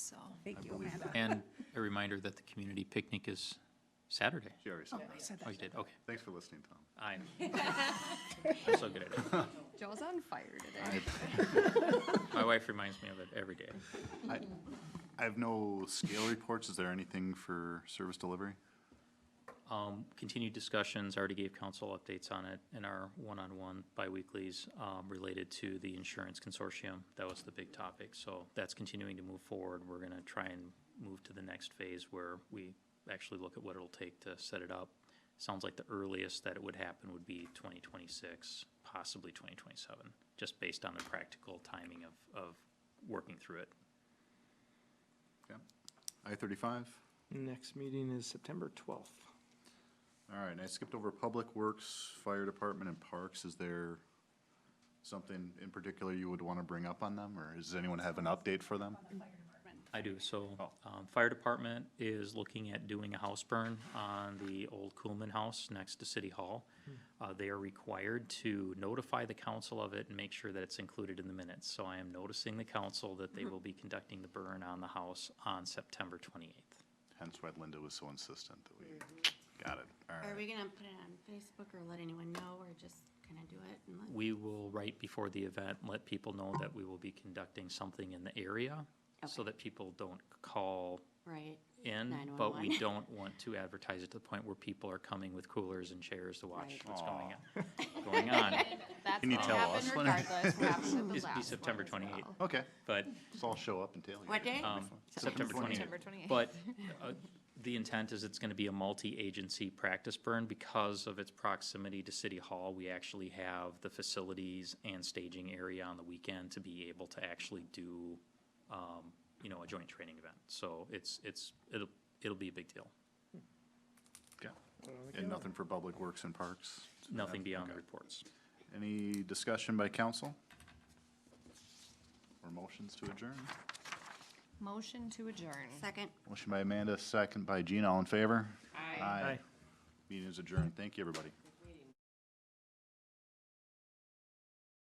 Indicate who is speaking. Speaker 1: Thank you,
Speaker 2: believe
Speaker 1: Amanda.
Speaker 3: And a reminder that the community picnic is Saturday.
Speaker 2: She already
Speaker 1: Oh,
Speaker 2: said
Speaker 1: I
Speaker 2: that.
Speaker 1: said
Speaker 3: Oh,
Speaker 1: that.
Speaker 3: you did, okay.
Speaker 2: Thanks for listening, Tom.
Speaker 3: I, I'm so good at it.
Speaker 4: Joe's on fire today.
Speaker 3: My wife reminds me of it every day.
Speaker 2: I I have no scale reports. Is there anything for service delivery?
Speaker 3: Um, Continued discussions, already gave council updates on it in our one-on-one bi-weeklies um, related to the insurance consortium. That was the big topic, so that's continuing to move forward. We're gonna try and move to the next phase where we actually look at what it'll take to set it up. Sounds like the earliest that it would happen would be twenty twenty-six, possibly twenty twenty-seven, just based on the practical timing of, of working through it.
Speaker 2: Yeah. I thirty-five?
Speaker 5: Next meeting is September 12th.
Speaker 2: All right, and I skipped over Public Works, Fire Department, and Parks. Is there something in particular you would want to bring up on them, or does anyone have an update for them?
Speaker 3: I do, so,
Speaker 2: Oh.
Speaker 3: um, fire department is looking at doing a house burn on the old Coolman House next to City Hall. Uh, they are required to notify the council of it and make sure that it's included in the minutes. So I am noticing the council that they will be conducting the burn on the house on September twenty-eighth.
Speaker 2: Hence why Linda was so insistent that we, got it, all
Speaker 6: Are we
Speaker 2: right.
Speaker 6: gonna put it on Facebook or let anyone know, or just kinda do it and let?
Speaker 3: We will, right before the event, let people know that we will be conducting something in the area so that people don't call
Speaker 6: Right,
Speaker 3: in, but we
Speaker 6: 911.
Speaker 3: don't want to advertise it to the point where people are coming with coolers and chairs to watch
Speaker 6: Right.
Speaker 3: what's going on, going on.
Speaker 4: That's
Speaker 2: Can you
Speaker 4: gonna
Speaker 2: tell
Speaker 4: happen
Speaker 2: us when it-
Speaker 4: regardless, what happened with the
Speaker 3: It's
Speaker 4: last
Speaker 3: be
Speaker 4: one
Speaker 3: September
Speaker 4: as
Speaker 3: 28th.
Speaker 4: well.
Speaker 2: Okay,
Speaker 3: But,
Speaker 2: so I'll show up and tell you.
Speaker 6: What day?
Speaker 2: It'll be
Speaker 3: Um,
Speaker 2: fun.
Speaker 3: September 28th.
Speaker 4: September 28th.
Speaker 3: but uh, the intent is it's gonna be a multi-agency practice burn because of its proximity to City Hall. We actually have the facilities and staging area on the weekend to be able to actually do, um, you know, a joint training event. So it's, it's, it'll, it'll be a big deal.
Speaker 2: Okay. And nothing for Public Works and Parks?
Speaker 3: Nothing beyond the
Speaker 2: Okay.
Speaker 3: reports.
Speaker 2: Any discussion by council? Or motions to adjourn?
Speaker 4: Motion to adjourn.
Speaker 6: second?
Speaker 2: Motion by Amanda, second by Gene, all in favor?
Speaker 4: Aye.
Speaker 2: Meeting is adjourned. Thank you, everybody.